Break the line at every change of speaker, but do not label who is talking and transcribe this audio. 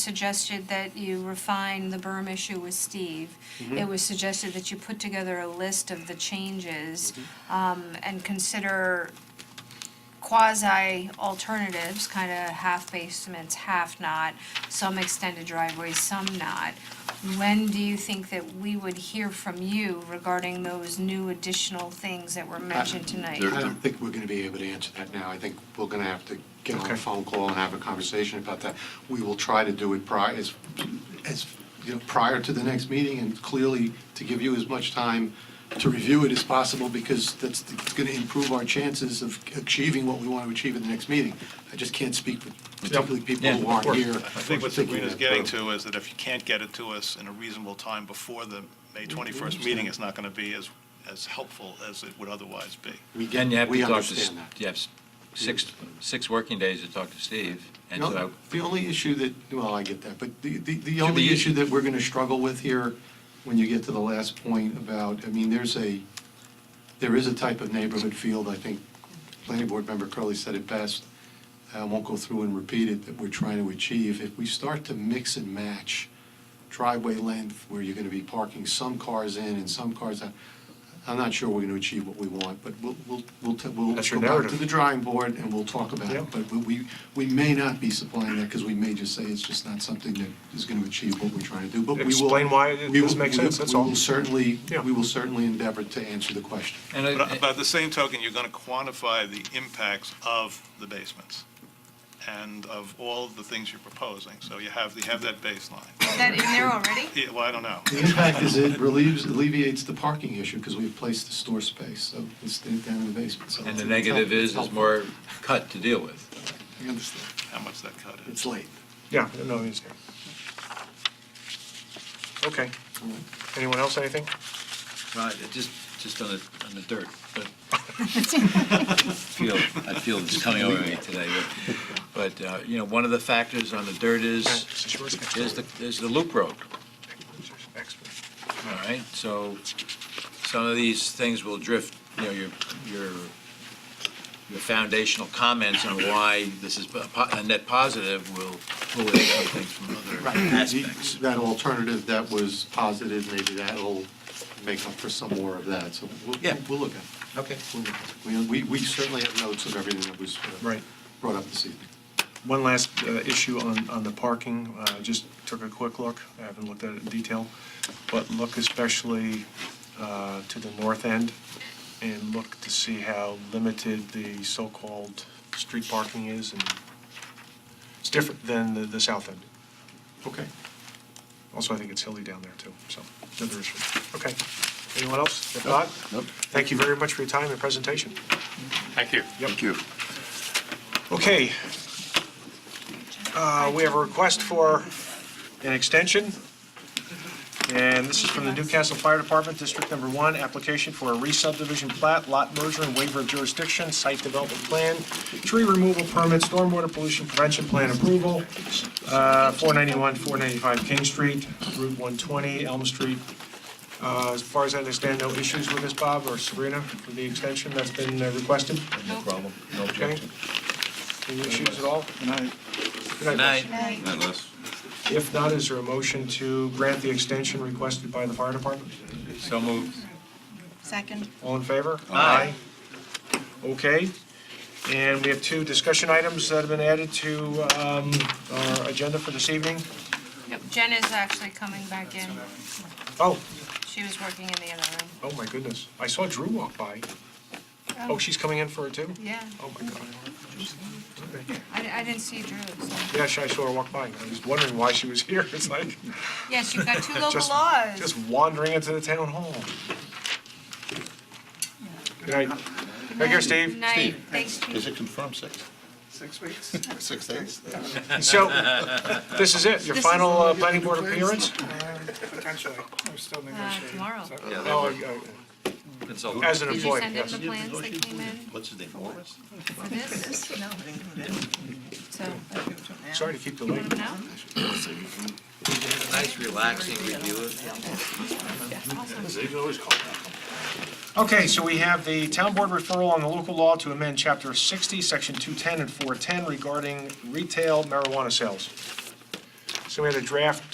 suggested that you refine the berm issue with Steve. It was suggested that you put together a list of the changes um, and consider quasi-alternatives, kind of half basements, half not, some extended driveways, some not. When do you think that we would hear from you regarding those new additional things that were mentioned tonight?
I don't think we're going to be able to answer that now. I think we're going to have to get on
Okay.
a phone call and have a conversation about that. We will try to do it prior, as, as, you know, prior to the next meeting, and clearly to give you as much time to review it as possible, because that's going to improve our chances of achieving what we want to achieve at the next meeting. I just can't speak for particularly people
Yeah,
who
of
aren't
course.
here.
I
I think what Sabrina's
that
getting
through.
to is that if you can't get it to us in a reasonable time before the May 21st meeting, it's not going to be as, as helpful as it would otherwise be.
We get,
Again, you have to
we
talk to, S-
understand that.
you have s- six, six working days to talk to Steve, and
No,
so,
The only issue that, well, I get that, but the, the, the
Should
only
we-
issue that we're gonna struggle with here, when you get to the last point about, I mean, there's a, there is a type of neighborhood field, I think, planning board member Curley said it best, I won't go through and repeat it, that we're trying to achieve. If we start to mix and match driveway length, where you're gonna be parking some cars in and some cars out, I'm not sure we're gonna achieve what we want, but we'll, we'll, we'll, t- we'll
That's your
go back to
narrative.
the drawing board and we'll talk about
Yeah.
it. But we- we, we may not be supplying that because we may just say it's just not something that is going to achieve what we're trying to do. But we will.
Explain why it
we will-
doesn't make
we-
sense, that's all.
We will certainly,
Yeah.
we will certainly endeavor to answer the question.
and I-
But but at the same token, you're going to quantify the impacts of the basements and of all the things you're proposing. So you have, you have that baseline.
Is that in there already?
Yeah, Well, I don't know.
The impact is it relieves, alleviates the parking issue because we've placed the store space, so it's down in the basement. so
and
it's-
the
it's
negative
helpful.
is, is
helpful.
more cut to deal with.
I understand.
How much that cut is.
It's late.
Yeah, no, he's here. Okay. Anyone else, anything?
Right, it just, just on the, on the dirt, but. Feel, I feel this coming over me today, but, but, uh, you know, one of the factors on the dirt is,
This is yours.
is the, is the loop road,
Expert.
all right? So some of these things will drift, you know, your, your, your foundational comments on why this is a po- a net positive will, will take things from other aspects.
That alternative that was posited, maybe that'll make up for some more of that, so we'll,
Yeah.
we'll look at it.
Okay.
We'll look at it. We, we certainly have notes of everything that was uh,
Right.
brought up this evening.
One last uh, issue on, on the parking, Uh, just took a quick look, I haven't looked at it in detail, but look especially uh, to the north end and look to see how limited the so-called street parking is and it's different than the, the south end.
Okay.
Also, I think it's hilly down there too, so another issue. Okay. Anyone else? If not, thank you very much for your time and presentation.
Thank you.
Thank you. Okay. Uh, We have a request for an extension, and this is from the Newcastle Fire Department, District Number One, application for a re-subdivision plat, lot merger and waiver of jurisdiction, site development plan, tree removal permit, stormwater pollution prevention plan approval, uh, 491, 495 King Street, Route 120, Elm Street. Uh, As far as I understand, no issues with this, Bob or Sabrina, for the extension that's been uh, requested?
No problem, no
Okay.
objection.
Any issues at all? Good
Good
night.
night.
guys. If not, is there a motion to grant the extension requested by the fire department?
So moved.
Second.
All in favor?
Aye.
Aye. Okay. And we have two discussion items that have been added to um, our agenda for this evening.
Nope, Jen is actually coming back in.
Oh,
She was working in the other room.
oh my goodness. I saw Drew walk by. Oh, she's coming in for it too?
Yeah,
Oh my God.
I, I didn't see Drew, so.
Yeah, I saw her walk by. I was wondering why she was here. It's like,
Yes, you've got two local
just,
laws.
just wandering into the town hall. Good night. Right here, Steve.
Night, thanks,
Is
Chief.
it confirmed six? Six weeks. Six days?
So, this is it, your
This is-
final uh, planning board appearance?
Uh,
Potentially, we're still negotiating.
Uh, tomorrow.
So-
Oh, uh, As an
Did you
employee,
send in
yes.
the plans that came in
What's his name, Morris?
for this?
No.
So,
Sorry to keep you late.
no?
Nice relaxing review of
Okay, so we have the town board referral on the local law to amend chapter 60, section 210 and 410 regarding retail marijuana sales. So we had a draft